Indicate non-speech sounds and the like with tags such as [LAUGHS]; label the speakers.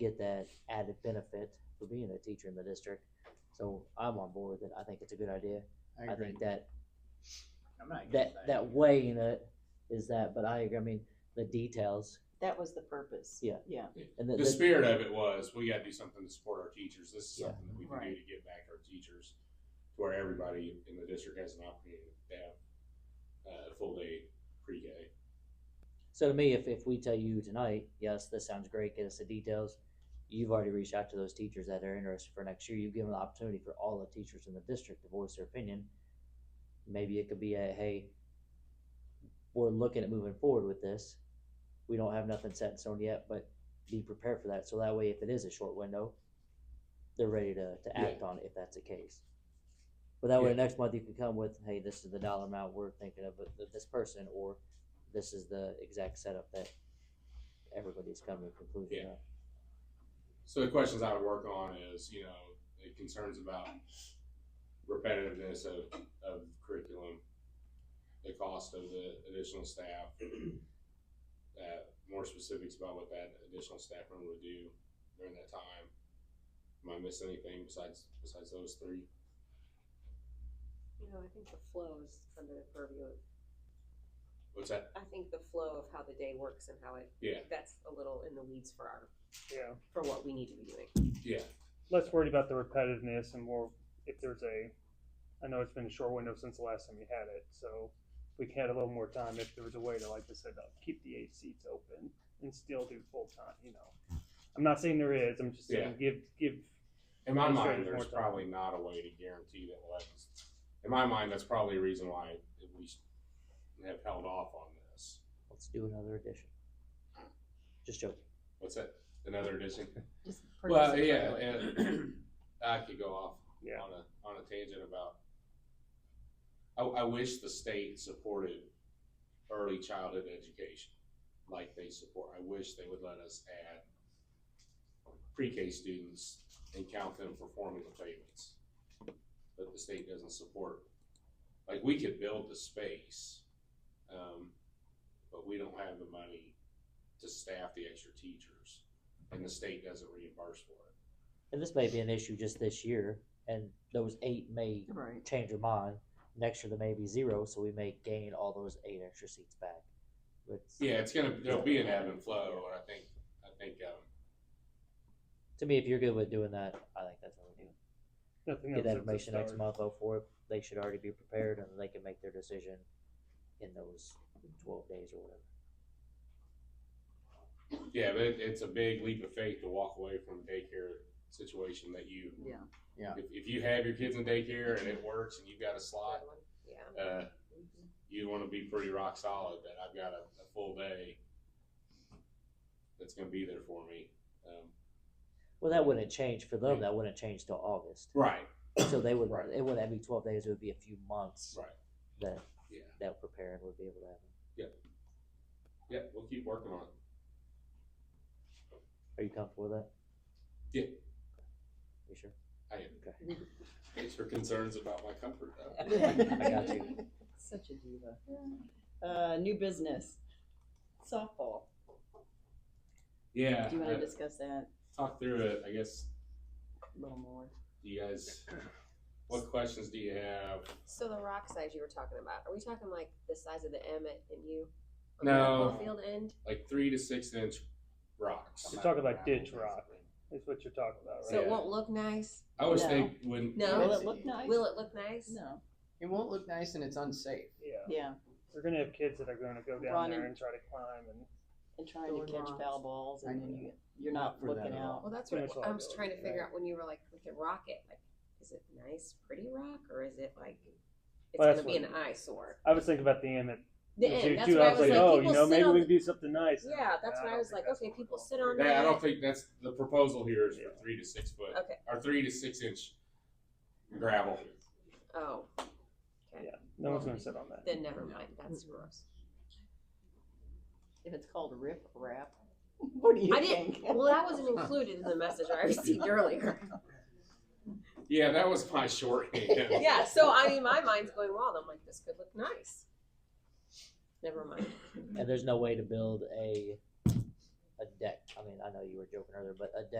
Speaker 1: get that added benefit for being a teacher in the district. So I'm on board with it. I think it's a good idea. I think that,
Speaker 2: I'm not against
Speaker 1: that, that weighing it is that, but I, agree. I mean, the details
Speaker 3: That was the purpose.
Speaker 1: Yeah.
Speaker 3: Yeah.
Speaker 1: and the.
Speaker 4: The spirit of it was, we gotta do something to support our teachers. This is
Speaker 1: Yeah.
Speaker 4: something that we can do
Speaker 3: Right.
Speaker 4: to give back to our teachers. to Where everybody in the district has an opportunity to have uh, a full day pre-K.
Speaker 1: So to me, if, if we tell you tonight, yes, this sounds great, get us the details, you've already reached out to those teachers that are interested for next year. You've given the opportunity for all the teachers in the district to voice their opinion. Maybe it could be a, hey, we're looking at moving forward with this. We don't have nothing set in stone yet, but be prepared for that. So that way, if it is a short window, they're ready to, to
Speaker 4: Yeah.
Speaker 1: act on it if that's the case. But that way, next month you can come with, hey, this is the dollar amount we're thinking of, but th- this person, or this is the exact setup that everybody's coming to a conclusion
Speaker 4: Yeah.
Speaker 1: of.
Speaker 4: So the questions I would work on is, you know, the concerns about repetitiveness of, of curriculum, the cost of the additional staff, uh, more specifics about what that additional staff member would do during that time. Am I missing anything besides, besides those three?
Speaker 5: You know, I think the flow is under the purview of,
Speaker 4: What's that?
Speaker 5: I think the flow of how the day works and how it,
Speaker 4: Yeah,
Speaker 5: that's a little in the weeds for our,
Speaker 6: Yeah,
Speaker 5: for what we need to be doing.
Speaker 4: yeah,
Speaker 6: less worried about the repetitiveness and more if there's a. I know it's been a short window since the last time we had it, so if we had a little more time. If there was a way to, like I said, uh, keep the eight seats open and still do full time, you know. I'm not saying there is. I'm just saying give give.
Speaker 4: In my
Speaker 6: Those
Speaker 4: mind,
Speaker 6: things
Speaker 4: there's
Speaker 6: more time.
Speaker 4: probably not a way to guarantee that Levin's. In my mind, that's probably a reason why we have held off on this.
Speaker 1: Let's do another edition. Just joking.
Speaker 4: What's that? Another edition?
Speaker 3: Just
Speaker 4: Well,
Speaker 3: purchase it
Speaker 4: yeah,
Speaker 3: right away. [CLEARS THROAT]
Speaker 4: and I could go off
Speaker 6: Yeah.
Speaker 4: on a on a tangent about. I, I wish the state supported early childhood education like they support. I wish they would let us add pre-K students and count them for formula payments, but the state doesn't support. Like we could build the space, um, but we don't have the money to staff the extra teachers, and the state doesn't reimburse for it.
Speaker 1: And this may be an issue just this year, and those eight may
Speaker 3: Right.
Speaker 1: change your mind. Next year, there may be zero, so we may gain all those eight extra seats back. But
Speaker 4: Yeah, it's gonna there'll be an ebb and flow, and I think I think um,
Speaker 1: to me, if you're good with doing that, I think that's what we do.
Speaker 6: Nothing
Speaker 1: Get
Speaker 6: else
Speaker 1: that
Speaker 6: at the
Speaker 1: information next
Speaker 6: start.
Speaker 1: month, oh, for it. They should already be prepared and they can make their decision in those twelve days or whatever.
Speaker 4: yeah, but it, it's a big leap of faith to walk away from a daycare situation that you
Speaker 3: Yeah.
Speaker 4: if, if you have your kids in daycare and it works and you've got a slot,
Speaker 5: Yeah.
Speaker 4: uh, you want to be pretty rock solid that I've got a, a full day that's gonna be there for me. Um,
Speaker 1: Well, that wouldn't change for them.
Speaker 4: Yeah.
Speaker 1: That wouldn't change till August.
Speaker 4: right,
Speaker 1: So they would,
Speaker 4: Right.
Speaker 1: it wouldn't be twelve days, it would be a few months
Speaker 4: right,
Speaker 1: that,
Speaker 4: Yeah.
Speaker 1: that preparing would be able to happen.
Speaker 4: yeah, we'll keep working on it.
Speaker 1: Are you comfortable with that?
Speaker 4: Yeah.
Speaker 1: You sure? [LAUGHS]
Speaker 4: I am.
Speaker 1: Okay.
Speaker 4: Thanks for concerns about my comfort though.
Speaker 1: I got you.
Speaker 3: Such a diva. Uh, new business, softball.
Speaker 4: Yeah,
Speaker 3: Do you want to
Speaker 4: I-
Speaker 3: discuss that
Speaker 4: talk through it. I guess
Speaker 3: a little more?
Speaker 4: you guys what questions do you have
Speaker 5: So the rock size you were talking about, are we talking like the size of the M at, and you? on the
Speaker 4: No.
Speaker 5: football Field end?
Speaker 4: like three to six inch rocks
Speaker 6: You're talking about ditch rock. Is what you're talking about,
Speaker 5: So
Speaker 6: right?
Speaker 5: it
Speaker 4: Yeah.
Speaker 5: won't look nice?
Speaker 4: i always
Speaker 3: No.
Speaker 4: think when
Speaker 5: No.
Speaker 3: Will it look nice?
Speaker 5: Will it look nice?
Speaker 3: No.
Speaker 7: It won't look nice and it's unsafe.
Speaker 6: Yeah.
Speaker 3: Yeah,
Speaker 6: We're gonna have kids that are gonna go down
Speaker 3: Run
Speaker 6: there
Speaker 3: and-
Speaker 6: and try to climb and
Speaker 3: and trying to
Speaker 7: Going
Speaker 3: catch
Speaker 7: wrong.
Speaker 3: foul balls and then you, you're
Speaker 7: Not
Speaker 3: not
Speaker 7: for that
Speaker 3: looking
Speaker 7: at all.
Speaker 3: out.
Speaker 5: Well, that's
Speaker 6: Too
Speaker 5: what
Speaker 6: much
Speaker 5: I was trying to
Speaker 6: liability,
Speaker 5: figure out when you were like with the rocket, like, is it nice, pretty rock, or is it like, it's
Speaker 6: Well, that's
Speaker 5: gonna be an
Speaker 6: what-
Speaker 5: eyesore?
Speaker 6: I was thinking about the Emmett
Speaker 5: The
Speaker 6: too,
Speaker 5: end, that's
Speaker 6: too.
Speaker 5: what I was like,
Speaker 6: oh, you
Speaker 5: people
Speaker 6: know,
Speaker 5: sit
Speaker 6: maybe
Speaker 5: on
Speaker 6: we
Speaker 5: the
Speaker 6: can do something nice. And
Speaker 5: Yeah,
Speaker 6: like,
Speaker 5: that's
Speaker 6: "Nah,
Speaker 5: what I
Speaker 6: don't
Speaker 5: was
Speaker 6: think
Speaker 5: like,
Speaker 6: that's
Speaker 5: okay,
Speaker 6: what
Speaker 5: people
Speaker 6: we're
Speaker 5: sit
Speaker 6: doing."
Speaker 5: on
Speaker 4: That- i
Speaker 5: Yeah.
Speaker 4: don't think that's the proposal here is
Speaker 6: Yeah.
Speaker 4: for three to six foot
Speaker 5: Okay.
Speaker 4: or three to six inch gravel
Speaker 5: Oh,
Speaker 6: No one's gonna sit on that.
Speaker 5: then never mind. That's gross.
Speaker 3: If it's called rip wrap, [LAUGHS] what do you
Speaker 5: I
Speaker 3: think?
Speaker 5: didn't. Well, that
Speaker 3: [LAUGHS]
Speaker 5: wasn't included in the message I received earlier.
Speaker 4: yeah that was my
Speaker 5: [LAUGHS]
Speaker 4: shorthand
Speaker 5: Yeah. So I mean, my mind's going wild. I'm like, this could look nice. Never mind.
Speaker 1: And there's no way to build a, a deck. I mean, I know you were joking earlier, but a deck